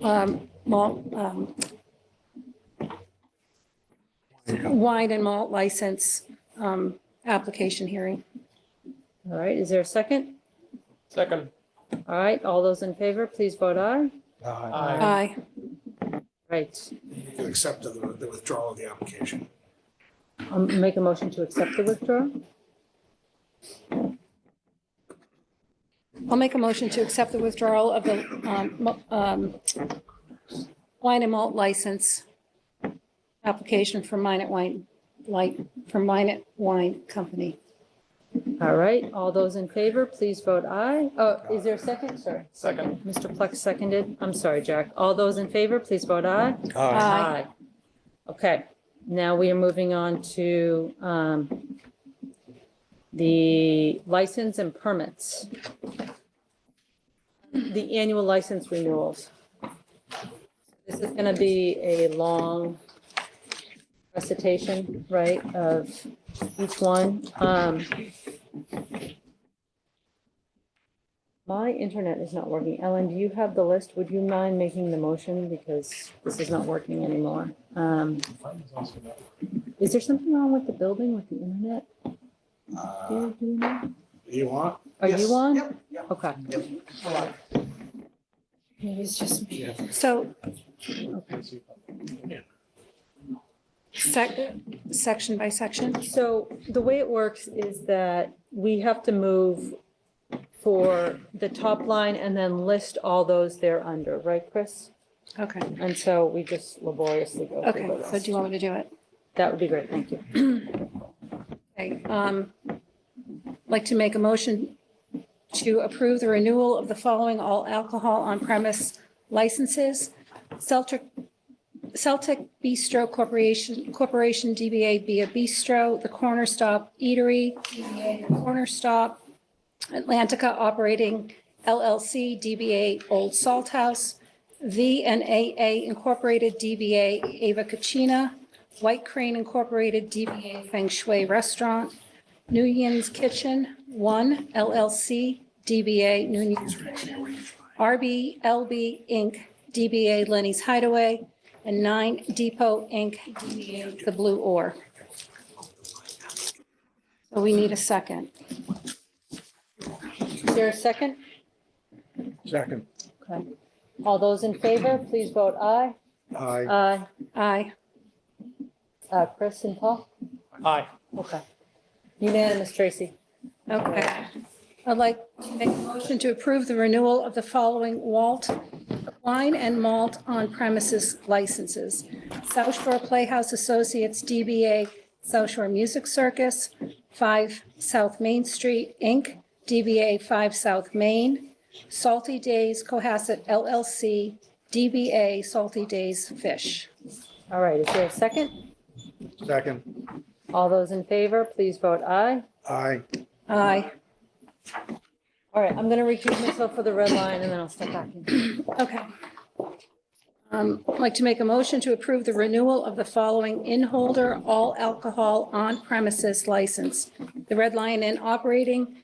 um, malt, um, wine and malt license, um, application hearing. All right, is there a second? Second. All right, all those in favor, please vote aye. Uh, Aye. Aye. Right, Uh, You accept the the withdrawal of the application. I'll um, make a motion to accept the withdrawal. I'll make a motion to accept the withdrawal of the, um, mo- um, wine and malt license application for Minot Wine, like, for Minot Wine Company. All right, all those in favor, please vote aye. Oh, is there a second? Sorry, Second. Mr. Plex seconded. I'm sorry, Jack. All those in favor, please vote aye. Aye. Okay, now we are moving on to um, the license and permits. The annual license renewals. This is going to be a long recitation, right, of each one. Um, My internet is not working. Ellen, do you have the list? Would you mind making the motion because this is not working anymore? Um, Is there something wrong with the building with the internet? Uh, Do you- do you know? You want? Are Yes. you on? Yep, yep. Okay. Maybe it's just me. Yeah. So, sec, section by section? So the way it works is that we have to move for the top line and then list all those they're under, right, Chris? Okay, And so we just laboriously go okay, through so do those. you want me to do it? That would be great, thank you. Okay, um, like to make a motion to approve the renewal of the following all alcohol on premise licenses. Celtic, Celtic Bistro Corporation, Corporation DBA Via Bistro, The Corner Stop Eatery, DBA The Corner Stop, Atlantica Operating LLC, DBA Old Salt House, V and AA Incorporated, DBA Ava Cucina, White Crane Incorporated, DBA Feng Shui Restaurant, New Yin's Kitchen, One LLC, DBA New Yin's Kitchen, RBLB Inc., DBA Lenny's Hideaway, and Nine Depot Inc., DBA The Blue Oar. So we need a second. Is there a second? Second. Okay. All those in favor, please vote aye. Aye. Aye. Aye. Uh, Chris and Paul? Aye. Okay. Unanimous, Tracy. Okay. I'd like to make a motion to approve the renewal of the following Walt Wine and Malt on premises licenses. South Shore Playhouse Associates DBA South Shore Music Circus, 5 South Main Street, Inc., DBA 5 South Main, Salty Days Cohasset LLC, DBA Salty Days Fish. All right, is there a second? Second. All those in favor, please vote aye. Aye. Aye. All right, I'm going to recuse myself for the red line and then I'll step back in. Okay. Um, I'd like to make a motion to approve the renewal of the following in-holder all alcohol on premises license. The Red Lion Inn Operating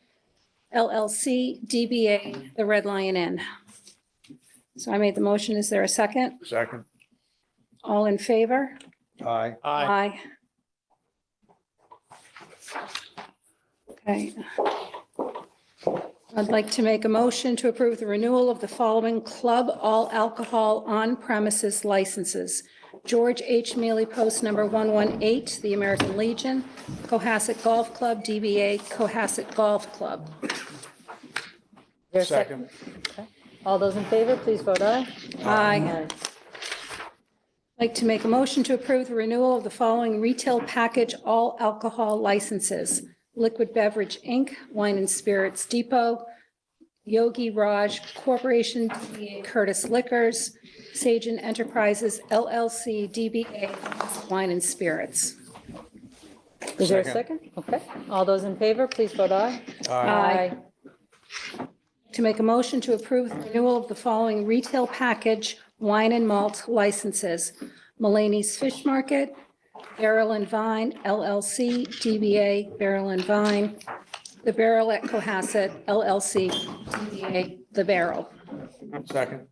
LLC DBA, the Red Lion Inn. So I made the motion. Is there a second? Second. All in favor? Aye. Aye. Aye. Okay. I'd like to make a motion to approve the renewal of the following club all alcohol on premises licenses. George H. Mealy Post Number 118, the American Legion, Cohasset Golf Club, DBA Cohasset Golf Club. Is there a All those in favor, please vote aye. Aye. Like to make a motion to approve the renewal of the following retail package all alcohol licenses. Liquid Beverage Inc., Wine and Spirits Depot, Yogi Raj Corporation, DBA Curtis Liquors, Sagen Enterprises LLC, DBA Wine and Spirits. Is there a Second. second? Okay. All those in favor, please vote aye. Aye. To make a motion to approve the renewal of the following retail package wine and malt licenses. Mulaney's Fish Market, Barrel and Vine LLC, DBA Barrel and Vine, The Barrel at Cohasset LLC, DBA The Barrel. Second.